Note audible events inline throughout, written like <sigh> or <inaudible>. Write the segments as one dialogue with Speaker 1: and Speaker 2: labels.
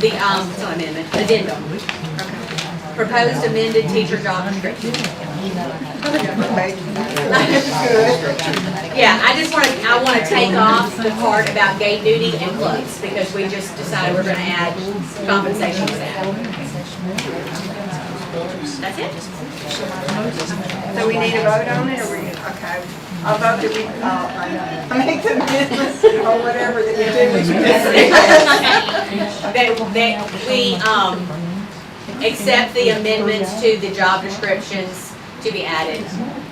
Speaker 1: the, um, it's not amendment, addendum. Proposed amended teacher job description. Yeah, I just wanna, I wanna take off the part about gate duty and clubs, because we just decided we're gonna add compensation to that. That's it?
Speaker 2: So we need a vote on it, or we, okay, I'll vote that we, uh, I make the business, or whatever that you do with your business.
Speaker 1: That, that we, um, accept the amendments to the job descriptions to be added,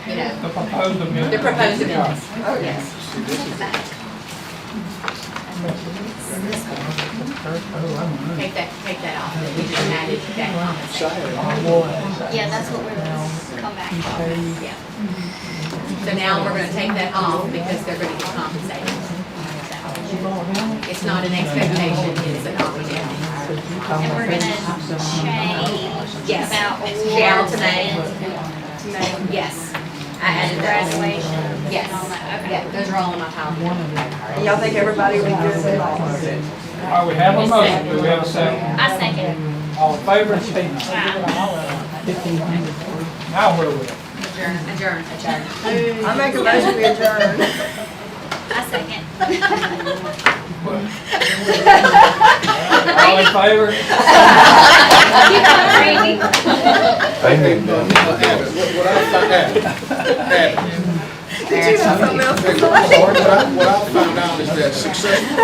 Speaker 1: you know,
Speaker 3: The proposed amendment.
Speaker 1: the proposed amendments.
Speaker 2: Oh, yes.
Speaker 1: Take that, take that off, that we just added that compensation.
Speaker 4: Yeah, that's what we're gonna come back on.
Speaker 1: Yeah. So now we're gonna take that off because they're gonna get compensated. It's not an expectation, it's an opportunity.
Speaker 4: And we're gonna change
Speaker 1: Yes.
Speaker 4: about
Speaker 1: Shall
Speaker 4: awards
Speaker 1: to name.
Speaker 4: and
Speaker 1: Yes, I added that.
Speaker 4: graduation
Speaker 1: Yes.
Speaker 4: and all that,
Speaker 1: Yeah,
Speaker 4: okay.
Speaker 1: those are all in my PowerPoint.
Speaker 2: And Y'all think everybody would be good with all?
Speaker 3: All right, we have a motion, do we have a second?
Speaker 4: I second.
Speaker 3: All in favor, say aye. Now where are we?
Speaker 1: Adjourn, adjourn, adjourn. <laughs>
Speaker 2: I make a motion we adjourn. <laughs>
Speaker 4: I
Speaker 1: <laughs>
Speaker 4: second.
Speaker 3: All in favor?
Speaker 4: Keep on reading.
Speaker 5: They need that.
Speaker 6: What what I found out,
Speaker 2: Did you have something else?
Speaker 6: what I, what I found out is that successful